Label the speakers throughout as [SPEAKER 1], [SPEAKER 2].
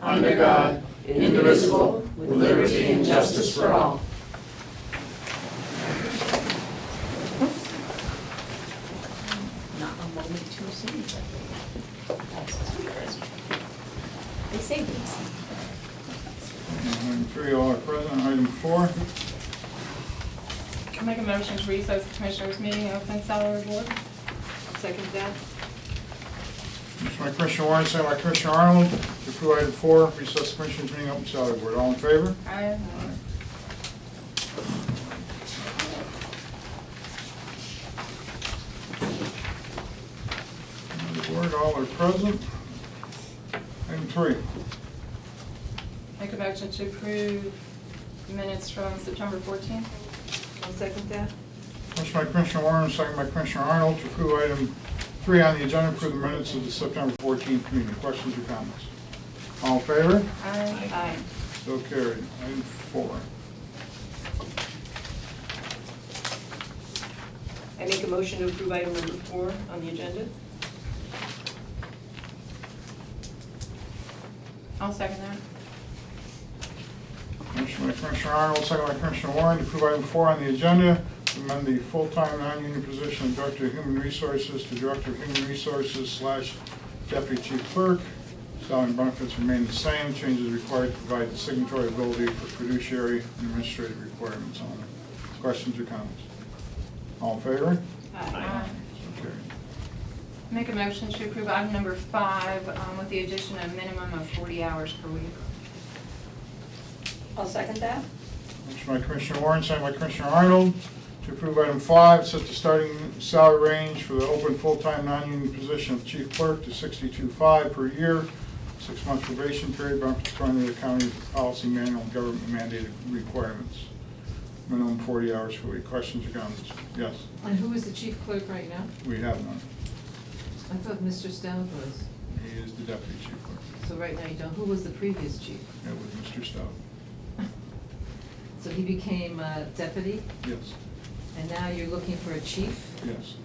[SPEAKER 1] under God, indivisible, with liberty and justice for all. Not a moment too soon. They say
[SPEAKER 2] Item three, all are present. Item four,
[SPEAKER 3] I make a motion to recess the commissioners' meeting, open salary board.
[SPEAKER 1] Second that?
[SPEAKER 2] motion by Commissioner Warren, second by Commissioner Arnold, to approve item four, recess commissioners meeting open salary board. All in favor?
[SPEAKER 3] I,
[SPEAKER 2] The board, all are present. Item three,
[SPEAKER 3] make a motion to approve minutes from September 14th.
[SPEAKER 1] I'll second that.
[SPEAKER 2] motion by Commissioner Warren, second by Commissioner Arnold, to approve item three on the agenda, approve the minutes of the September 14th meeting. Questions or comments? All in favor?
[SPEAKER 3] Aye.
[SPEAKER 2] So carried. Item four.
[SPEAKER 4] I make a motion to approve item number four on the agenda.
[SPEAKER 3] I'll second that.
[SPEAKER 2] Motion by Commissioner Arnold, second by Commissioner Warren, to approve item four on the agenda, to amend the full-time non-union position of Director of Human Resources to Director of Human Resources slash Deputy Chief Clerk. Salary and benefits remain the same, changes required to provide the signatory ability for fiduciary and administrative requirements only. Questions or comments? All in favor?
[SPEAKER 3] Aye.
[SPEAKER 2] So carried.
[SPEAKER 3] Make a motion to approve item number five um, with the addition of minimum of 40 hours per week.
[SPEAKER 4] I'll second that.
[SPEAKER 2] Motion by Commissioner Warren, second by Commissioner Arnold, to approve item five, set the starting salary range for the open full-time non-union position of chief clerk to $62,500 per year, six-month probation period, benefits according to the county's policy manual and government mandated requirements. Minimum 40 hours per week. Questions or comments? Yes,
[SPEAKER 5] And who is the chief clerk right now?
[SPEAKER 2] we have one.
[SPEAKER 5] I thought Mr. Stout was,
[SPEAKER 2] He is the deputy chief clerk.
[SPEAKER 5] so right now you don't, who was the previous chief?
[SPEAKER 2] It was Mr. Stout.
[SPEAKER 5] So he became uh, deputy,
[SPEAKER 2] Yes,
[SPEAKER 5] and now you're looking for a chief,
[SPEAKER 2] yes.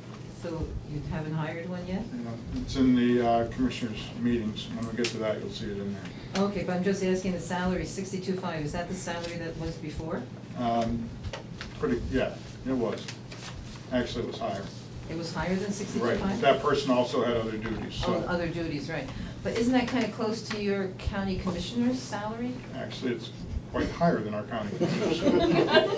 [SPEAKER 5] so you haven't hired one yet?
[SPEAKER 2] Yeah, It's in the uh, commissioners' meetings. When we get to that, you'll see it in there.
[SPEAKER 5] Okay, but I'm just asking the salary, sixty-two five, is that the salary that was before?
[SPEAKER 2] Um, Pretty, yeah, it was. Actually, it was higher.
[SPEAKER 5] It was higher than sixty-two
[SPEAKER 2] Right,
[SPEAKER 5] five?
[SPEAKER 2] that person also had other duties,
[SPEAKER 5] Oh,
[SPEAKER 2] so.
[SPEAKER 5] other duties, right. But isn't that kind of close to your county commissioner's salary?
[SPEAKER 2] Actually, it's quite higher than our county commissioners.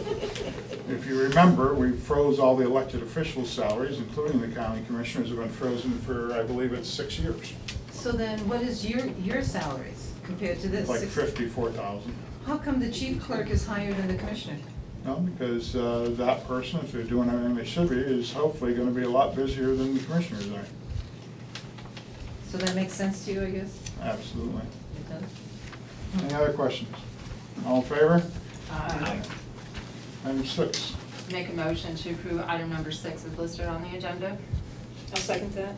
[SPEAKER 2] If you remember, we froze all the elected officials' salaries, including the county commissioners, have been frozen for, I believe it's six years.
[SPEAKER 5] So then what is your, your salaries compared to this?
[SPEAKER 2] Like
[SPEAKER 5] Six-
[SPEAKER 2] fifty-four thousand.
[SPEAKER 5] How come the chief clerk is higher than the commissioner?
[SPEAKER 2] No, because uh, that person, if they're doing everything they should be, is hopefully gonna be a lot busier than the commissioners are.
[SPEAKER 5] So that makes sense to you, I guess?
[SPEAKER 2] Absolutely.
[SPEAKER 5] It does?
[SPEAKER 2] Any other questions? All in favor?
[SPEAKER 5] Aye.
[SPEAKER 2] Item six.
[SPEAKER 3] uh, Make a motion to approve item number six is listed on the agenda.
[SPEAKER 4] I'll second that.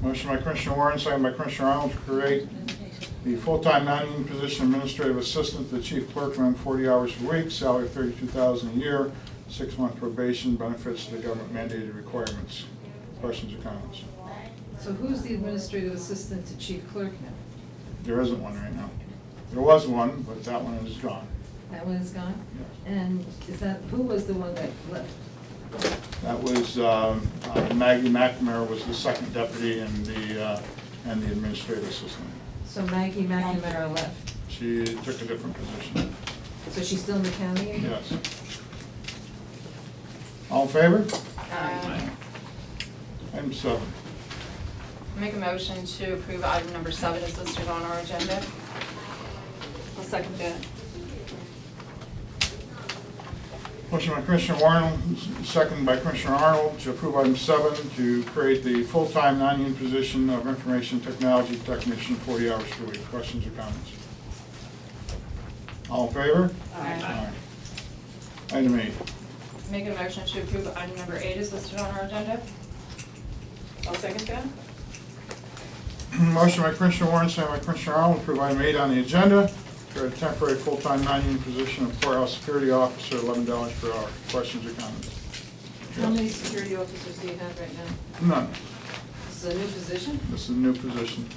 [SPEAKER 2] Motion by Commissioner Warren, second by Commissioner Arnold to create the full-time non-union position administrative assistant to the chief clerk, around 40 hours a week, salary of 32000 a year, six-month probation, benefits to the government mandated requirements. Questions or comments?
[SPEAKER 5] So who's the administrative assistant to chief clerk now?
[SPEAKER 2] There isn't one right now. There was one, but that one is gone.
[SPEAKER 5] That one is gone?
[SPEAKER 2] Yes.
[SPEAKER 5] And is that, who was the one that left?
[SPEAKER 2] That was, um, uh, Maggie McNamara was the second deputy and the, uh, and the administrative assistant.
[SPEAKER 5] So Maggie McNamara left.
[SPEAKER 2] She took a different position.
[SPEAKER 5] So she's still in the county?
[SPEAKER 2] Yes. All in favor?
[SPEAKER 3] Aye.
[SPEAKER 2] Item seven.
[SPEAKER 3] Make a motion to approve item number seven is listed on our agenda.
[SPEAKER 4] I'll second that.
[SPEAKER 2] Motion by Commissioner Warren, second by Commissioner Arnold, to approve item seven, to create the full-time non-union position of information technology technician, 40 hours per week. Questions or comments? All in favor?
[SPEAKER 3] Aye.
[SPEAKER 2] Aye. Item eight.
[SPEAKER 3] Make a motion to approve item number eight is listed on our agenda.
[SPEAKER 4] I'll second that.
[SPEAKER 2] Motion by Commissioner Warren, second by Commissioner Arnold, to approve item eight on the agenda, create a temporary full-time non-union position of courthouse security officer, $11 per hour. Questions or comments?
[SPEAKER 5] How many security officers do you have right now?
[SPEAKER 2] None.
[SPEAKER 5] This is a new position?
[SPEAKER 2] This is a new position.